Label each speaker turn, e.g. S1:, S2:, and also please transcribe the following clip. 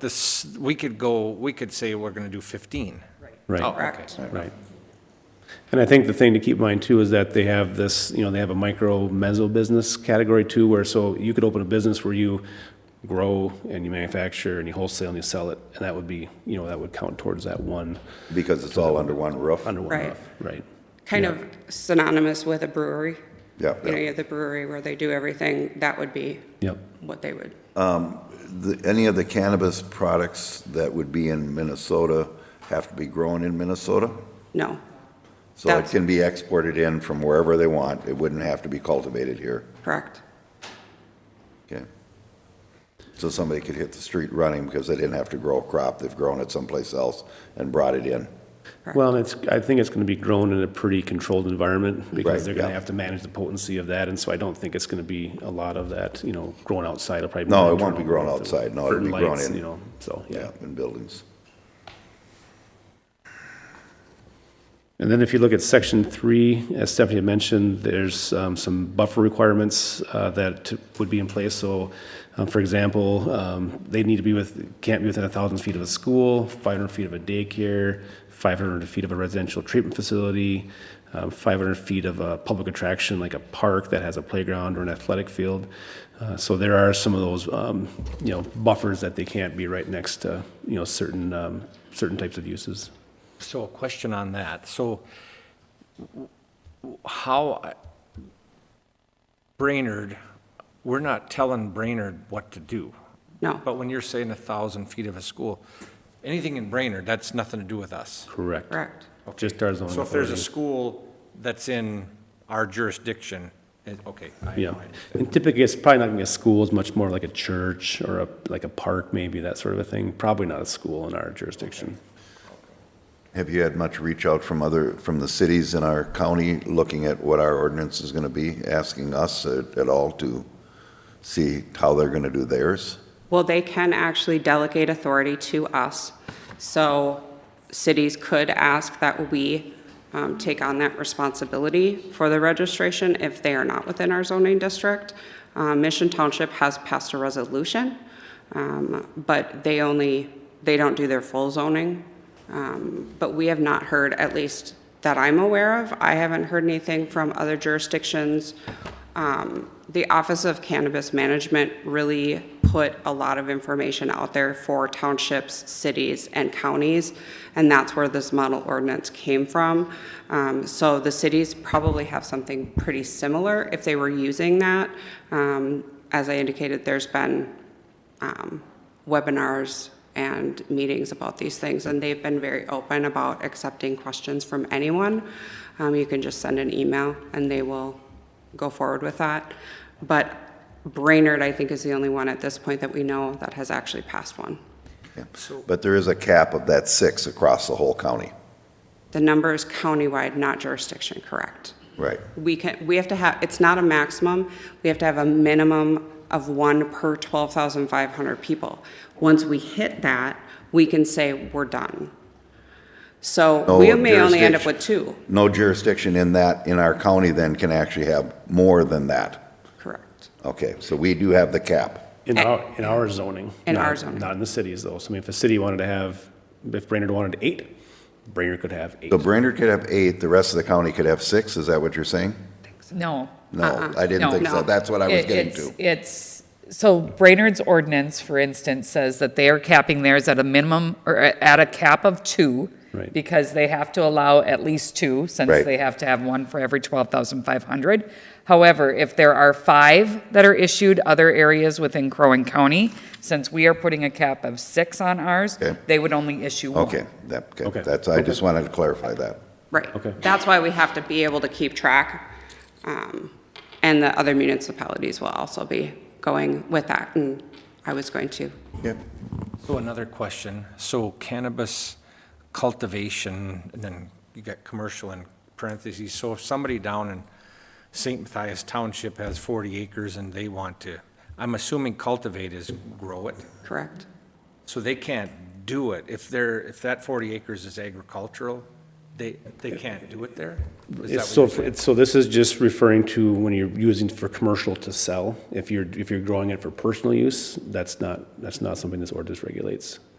S1: This, we could go, we could say we're gonna do fifteen. Oh,
S2: Right,
S1: okay.
S3: Correct.
S2: right. And I think the thing to keep in mind too is that they have this, you know, they have a micro mezzo business category too, where so you could open a business where you grow and you manufacture and you wholesale and you sell it, and that would be, you know, that would count towards that one,
S4: Because it's all under one roof?
S2: under one
S3: Right.
S2: roof, right?
S3: Kind of synonymous with a brewery.
S4: Yeah,
S3: You know,
S4: yeah.
S3: you have the brewery where they do everything, that would be
S2: Yep.
S3: what they would,
S4: The- Any of the cannabis products that would be in Minnesota have to be grown in Minnesota?
S3: no.
S4: So it
S3: That's-
S4: can be exported in from wherever they want. It wouldn't have to be cultivated here.
S3: Correct.
S4: Okay. So somebody could hit the street running because they didn't have to grow a crop. They've grown it someplace else and brought it in.
S2: Well, and it's, I think it's gonna be grown in a pretty controlled environment,
S4: Right,
S2: because they're gonna
S4: yeah.
S2: have to manage the potency of that, and so I don't think it's gonna be a lot of that, you know, grown outside, it'll probably. be
S4: No,
S2: more
S4: it won't be
S2: internal
S4: grown
S2: growth of
S4: outside. No, it'll
S2: certain
S4: be grown
S2: lights,
S4: in.
S2: You know, so, yeah.
S4: Yeah, in buildings.
S2: And then if you look at section three, as Stephanie had mentioned, there's um, some buffer requirements uh, that would be in place. So, um, for example, um, they need to be with, can't be within a thousand feet of a school, five hundred feet of a daycare, five hundred feet of a residential treatment facility, um, five hundred feet of a public attraction like a park that has a playground or an athletic field. Uh, So there are some of those, um, you know, buffers that they can't be right next to, you know, certain, um, certain types of uses.
S1: So a question on that. So w- w- how, I- Brainerd, we're not telling Brainerd what to do.
S3: No.
S1: But when you're saying a thousand feet of a school, anything in Brainerd, that's nothing to do with us.
S2: Correct.
S3: Correct.
S2: Just our zoning
S1: So if there's a
S2: authority.
S1: school that's in our jurisdiction, it- okay. I-
S2: Yeah, and typically, it's probably not gonna be a school, it's much more like a church or a, like a park, maybe, that sort of a thing. Probably not a school in our jurisdiction.
S4: Have you had much reach out from other, from the cities in our county, looking at what our ordinance is going to be, asking us at at all to see how they're going to do theirs?
S3: Well, they can actually delegate authority to us. So cities could ask that we um, take on that responsibility for the registration if they are not within our zoning district. Uh, Mission Township has passed a resolution, um, but they only, they don't do their full zoning. Um, But we have not heard, at least that I'm aware of, I haven't heard anything from other jurisdictions um, The Office of Cannabis Management really put a lot of information out there for townships, cities, and counties, and that's where this model ordinance came from. Um, So the cities probably have something pretty similar if they were using that. Um, As I indicated, there's been um, webinars and meetings about these things, and they've been very open about accepting questions from anyone. Um, You can just send an email, and they will go forward with that. But Brainerd, I think, is the only one at this point that we know that has actually passed one.
S4: Yeah. But there is a cap of that six across the whole county,
S3: The number is countywide, not jurisdiction, correct?
S4: right?
S3: We can, we have to have, it's not a maximum, we have to have a minimum of one per 12,500 people. Once we hit that, we can say, we're done. So
S4: No
S3: we may only end up
S4: jurisdiction.
S3: with two,
S4: No jurisdiction in that, in our county then can actually have more than that.
S3: correct?
S4: Okay, so we do have the cap.
S2: In our, in our zoning.
S3: In our
S2: not-
S3: zoning.
S2: Not in the cities, though. So I mean, if a city wanted to have, if Brainerd wanted eight, Brainerd could have eight.
S4: So Brainerd could have eight, the rest of the county could have six, is that what you're saying?
S5: No.
S4: No, I didn't
S5: Uh-uh. No.
S4: think so.
S3: No.
S4: That's what I was
S5: It-
S4: getting
S5: it's-
S4: to.
S5: It's, so Brainerd's ordinance, for instance, says that they are capping theirs at a minimum, or at a cap of two.
S2: Right.
S5: Because they have to allow at least two, since
S4: Right.
S5: they have to have one for every 12,500. However, if there are five that are issued other areas within Crow Wing County, since we are putting a cap of six on ours,
S4: Okay.
S5: they would only issue one.
S4: Okay, that, okay,
S2: Okay.
S4: that's, I just wanted to clarify that.
S3: Right.
S2: Okay.
S3: That's why we have to be able to keep track. um, And the other municipalities will also be going with that, and I was going to.
S4: Yep.
S1: So another question, so cannabis cultivation, and then you got commercial in parentheses, so if somebody down in St. Matthias Township has 40 acres and they want to, I'm assuming cultivate is grow it,
S3: Correct.
S1: so they can't do it. If they're, if that 40 acres is agricultural, They, they can't do it there? Is that what
S2: It's
S1: you're
S2: So, it's- so this is just referring to when you're using for commercial to sell. If you're, if you're growing it for personal use, that's not, that's not something this ordinance regulates.